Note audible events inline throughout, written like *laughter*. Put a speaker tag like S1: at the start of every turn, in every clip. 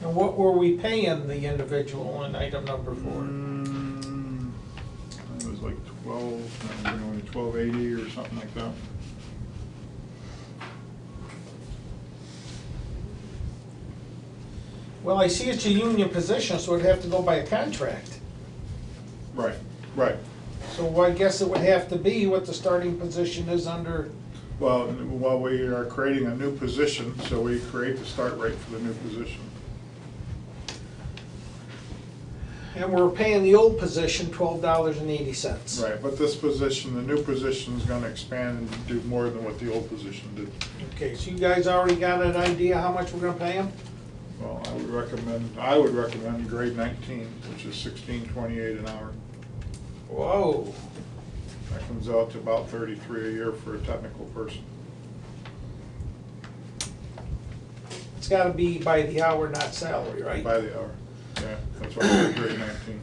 S1: And what were we paying the individual on item number four?
S2: Mm, It was like twelve, no, we're going to twelve eighty or something like that.
S1: Well, I see it's a union position, so it'd have to go by a contract.
S2: Right, right.
S1: So I guess it would have to be what the starting position is under,
S2: Well, n- while we are creating a new position, so we create the start rate for the new position.
S1: and we're paying the old position twelve dollars and eighty cents.
S2: Right, but this position, the new position is gonna expand and do more than what the old position did.
S1: Okay, so you guys already got an idea how much we're gonna pay them?
S2: Well, I would recommend, I would recommend grade nineteen, which is sixteen twenty-eight an hour.
S1: Whoa.
S2: That comes out to about thirty-three a year for a technical person.
S1: It's gotta be by the hour, not salary, right?
S2: By the hour, yeah, that's why I said grade nineteen.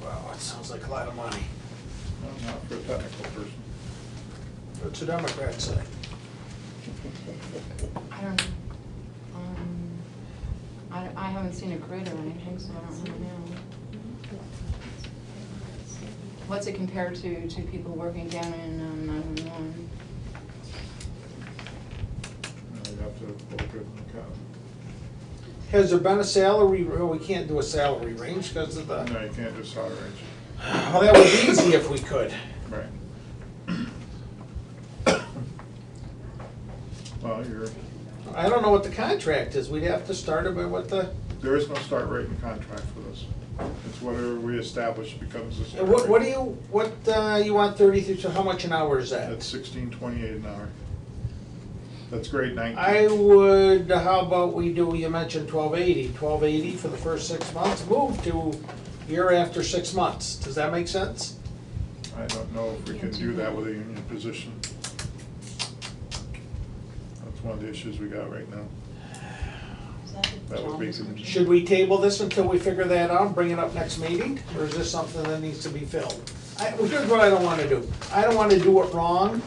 S1: Wow, that sounds like a lot of money.
S2: No, Not for a technical person.
S1: What's the Democrats say?
S3: I don't, um, I, I haven't seen a grid or anything, so I don't really know. What's it compared to, to people working down in um, 911?
S2: No, you have to look good in the
S1: Has there been a salary, well, we can't do a salary range because of
S2: account.
S1: the,
S2: No, you can't just salary range.
S1: well, that would be easy if we could.
S2: Right. Well, you're,
S1: I don't know what the contract is, we'd have to start it by what the,
S2: there is no start rate in contract for this. It's whatever we establish becomes the start rate.
S1: what, what do you, what, uh, you want thirty-three, so how much an hour is that?
S2: That's sixteen twenty-eight an hour. That's grade nineteen.
S1: I would, how about we do, you mentioned twelve eighty. Twelve eighty for the first six months, move to year after six months. Does that make sense?
S2: I don't know if we can do that with a union position. That's one of the issues we got right now. That would be some-
S1: Should we table this until we figure that out, bring it up next meeting? Or is this something that needs to be filled? I, well, here's what I don't wanna do. I don't wanna do it wrong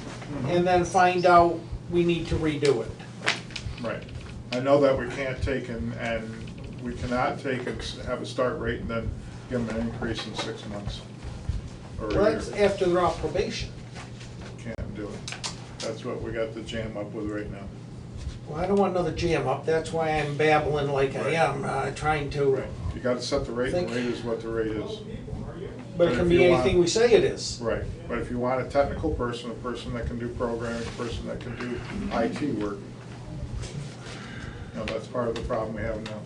S1: and then find out we need to redo it.
S2: Right. I know that we can't take and, and we cannot take and s- have a start rate and then give them an increase in six months. Or
S1: Well,
S2: a
S1: that's
S2: year.
S1: after they're off probation.
S2: Can't do it. That's what we got the jam up with right now.
S1: Well, I don't want another jam up. That's why I'm babbling like I
S2: Right.
S1: am, uh, trying to,
S2: Right. You gotta set the rate, and
S1: Think-
S2: the rate is what the rate is.
S1: but it
S2: But
S1: can
S2: if
S1: be
S2: you want-
S1: anything we say it is.
S2: Right, but if you want a technical person, a person that can do programming, a person that can do IT work, you know, that's part of the problem we have now.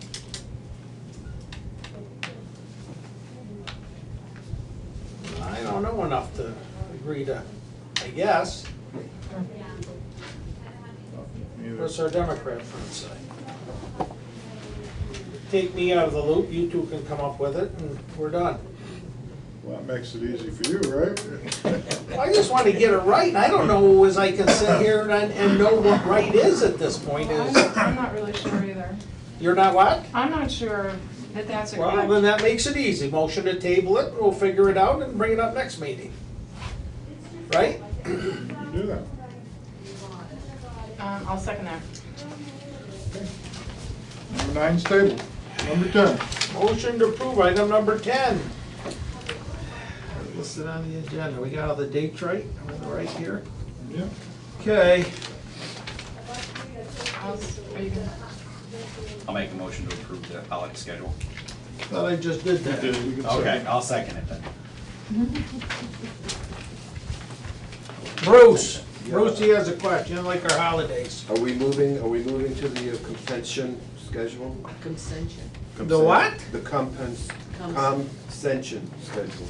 S1: I don't know enough to agree to, I guess,
S2: Neither-
S1: what's our Democrat friend say? Take me out of the loop, you two can come up with it, and we're done.
S2: Well, that makes it easy for you,
S1: *laughs*
S2: right?
S1: I just want to get it right, and I don't know as I can sit here and, and know what right is at this point,
S3: I'm
S1: is,
S3: I'm not really sure either.
S1: you're not what?
S3: I'm not sure that that's a
S1: Well, then
S3: grid.
S1: that makes it easy, motion to table it, we'll figure it out and bring it up next meeting. Right? *clears throat*
S2: You can do that.
S3: Um, I'll second that.
S2: Number nine's table. Number ten,
S1: Motion to approve item number ten. Listed on the agenda, we got all the dates right, am I right here?
S2: yeah,
S1: Okay,
S3: I'll s- Are you gonna?
S4: I'll make a motion to approve the holiday schedule.
S1: thought I just did
S2: you did,
S1: that.
S2: you can
S4: Okay,
S2: second.
S4: I'll second it then.
S1: Bruce, Bruce, he has a question, like our holidays.
S5: Are we moving, are we moving to the uh, compensation schedule?
S6: Consension.
S1: The what?
S5: The compens,
S6: Cons-
S5: compensation schedule.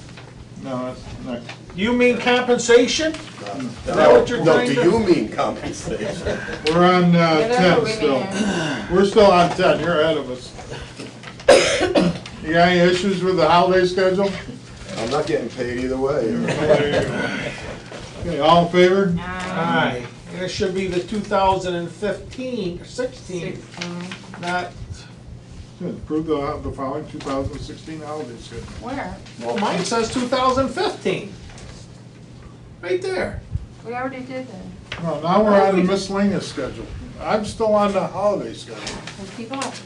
S2: No, that's next.
S1: Do you mean compensation?
S5: Is
S1: that what you're trying to-
S5: No,
S1: *laughs*
S5: do you mean compensation?
S2: We're on uh,
S3: Yeah, that's
S2: ten
S3: what we
S2: still. We're still on ten, you're ahead of us. *coughs* You got any issues with the holiday schedule?
S5: I'm not getting paid
S1: *laughs*
S5: either way.
S2: Okay, all in favor?
S3: Ah,
S1: Aye, and it should be the 2015, 16,
S3: sixteen.
S1: not,
S2: Approve the, the following two thousand sixteen holiday schedule.
S3: Where?
S1: well, mine says 2015. Right there.
S3: We already did that.
S2: Well, now we're on the miscellaneous schedule. I'm still on the holiday schedule.
S3: Well, People have